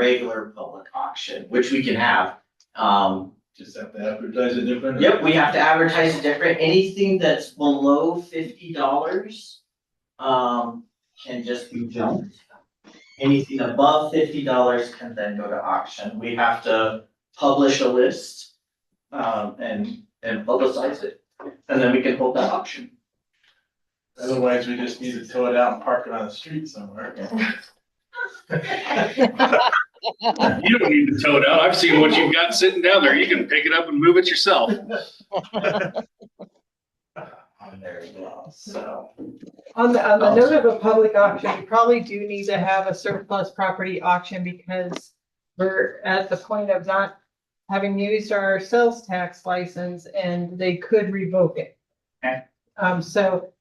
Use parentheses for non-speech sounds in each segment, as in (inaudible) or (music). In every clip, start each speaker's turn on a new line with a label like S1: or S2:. S1: regular public auction, which we can have. Um,
S2: Just have to advertise it different.
S1: Yep, we have to advertise it different, anything that's below fifty dollars, um, can just be junked. Anything above fifty dollars can then go to auction, we have to publish a list, um, and, and publicize it, and then we can hold that auction.
S2: Otherwise, we just need to tow it out and park it on the street somewhere.
S3: You don't need to tow it out. I've seen what you've got sitting down there. You can pick it up and move it yourself.
S1: There we go, so,
S4: On the, on the note of a public auction, you probably do need to have a surplus property auction because we're at the point of not having used our sales tax license and they could revoke it.
S1: Okay.
S4: Um, so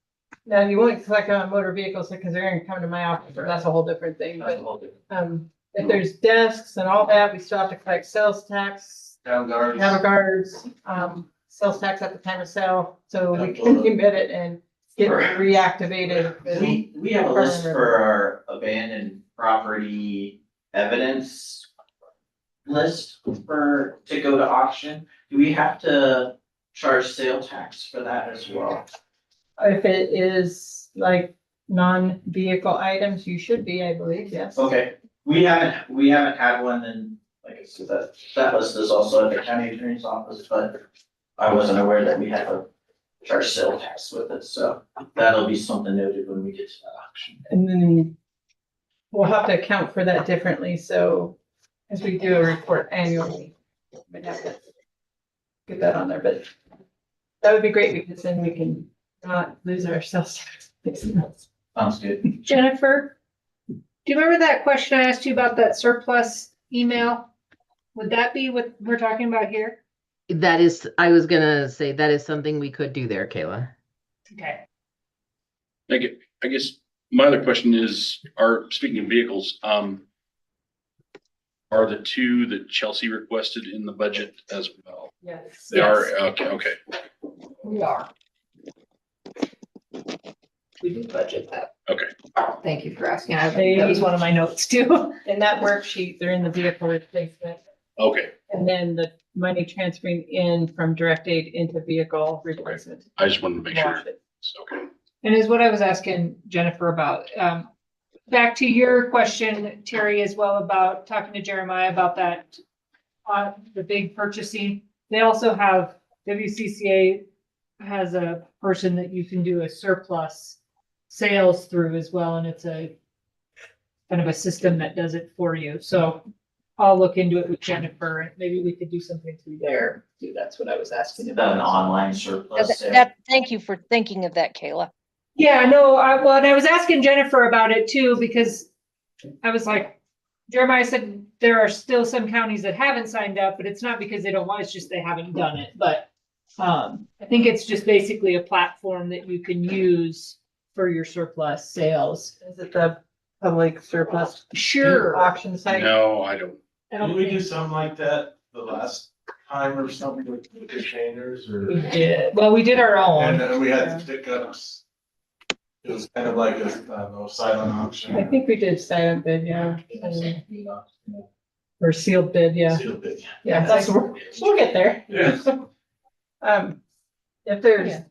S4: now you won't collect on motor vehicles because they're gonna come to my office, but that's a whole different thing,
S1: that's a
S4: but,
S1: whole different.
S4: um, if there's desks and all that, we still have to collect sales tax,
S2: Town guards.
S4: cattle guards, um, sales tax at the time of sale, so we can
S2: Absolutely.
S4: commit it and get reactivated. with-
S1: We, we have a list for our abandoned property evidence list for, to go to auction. Do we have to charge sale tax for that as well?
S4: If it is like non-vehicle items, you should be, I believe, yes.
S1: Okay, we haven't, we haven't had one in, like I said, that, that list is also at the county attorney's office, but I wasn't aware that we had a charge sale tax with it, so that'll be something noted when we get to that auction.
S4: And then we'll have to account for that differently, so as we do a report annually. we'd have to Get that on there, but that would be great because then we can not lose our sales tax.
S1: Sounds good.
S5: Jennifer, do you remember that question I asked you about that surplus email? Would that be what we're talking about here?
S6: That is, I was gonna say that is something we could do there, Kayla.
S5: Okay.
S3: I guess, I guess my other question is, are, speaking of vehicles, um, are the two that Chelsea requested in the budget as well?
S4: Yes.
S3: They are, okay, okay.
S5: We are. We did budget that.
S3: Okay.
S5: Thank you for asking. I- That was one of my notes too. (laughs)
S4: In that worksheet, they're in the vehicle replacement.
S3: Okay,
S4: And then the money transferring in from direct aid into vehicle replacement.
S3: I just wanted to make sure. It's Okay.
S5: And is what I was asking Jennifer about. Um, back to your question, Terry, as well about talking to Jeremiah about that on the big purchasing. They also have, WCCA has a person that you can do a surplus sales through as well, and it's a kind of a system that does it for you. So I'll look into it with Jennifer, and maybe we could do something through there. too. That's what I was asking
S1: An
S5: about.
S1: online
S7: Uh,
S1: surplus
S7: th-
S1: sale.
S7: That, thank you for thinking of that, Kayla.
S5: Yeah, no, I, well, and I was asking Jennifer about it too, because I was like, Jeremiah said there are still some counties that haven't signed up, but it's not because they don't want, it's just they haven't done it, but um, I think it's just basically a platform that you can use for your surplus sales.
S4: Is it the public surplus
S5: Sure.
S4: auction site?
S3: No, I don't.
S5: I
S2: Did
S5: don't
S2: we do
S5: think
S2: something like that the last time or something with the containers
S5: we
S2: or?
S5: did. Well, we did our
S2: And
S5: own.
S2: then we had pickups. It was kind of like a, I don't know, silent auction.
S4: I think we did silent bid, yeah, and- or sealed bid, yeah,
S2: Sealed bid.
S4: yeah, that's, we'll we'll get there.
S2: Yeah.
S4: Um, if
S5: Yeah.
S4: there's,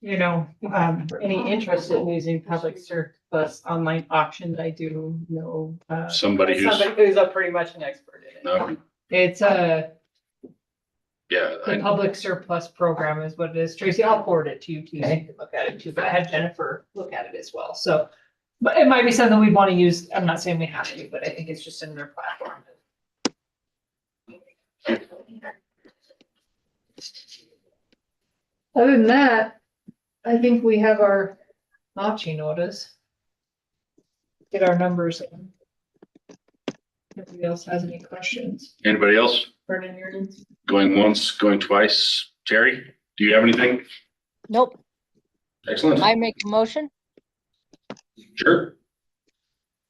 S4: you know, um, any interest in using public surplus online auctions, I do know, uh,
S3: Somebody who's,
S4: somebody who's a pretty much an expert in it.
S3: no,
S5: It's uh, a.
S3: yeah,
S5: The
S3: I,
S5: public surplus program is what it is. Tracy, I'll forward it to you too. so you
S4: Okay.
S5: can Look at it too, but I had Jennifer look at it as well. So. But it might be something we'd want to use. I'm not saying we have to, but I think it's just another platform. Other than that, I think we have our notching orders. Get our numbers. in. Nobody else has any questions?
S3: anybody else
S5: Vernon, you're-
S3: going once, going twice? Terry, do you have anything?
S7: Nope,
S3: Excellent.
S7: I make a motion.
S3: Sure.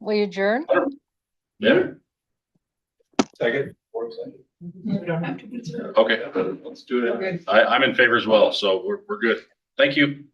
S7: Will you adjourn?
S3: Yeah,
S2: Second.
S5: We don't have to.
S3: okay. Let's do
S4: Good.
S3: I, I'm in favor as well, so we're, we're good. Thank you.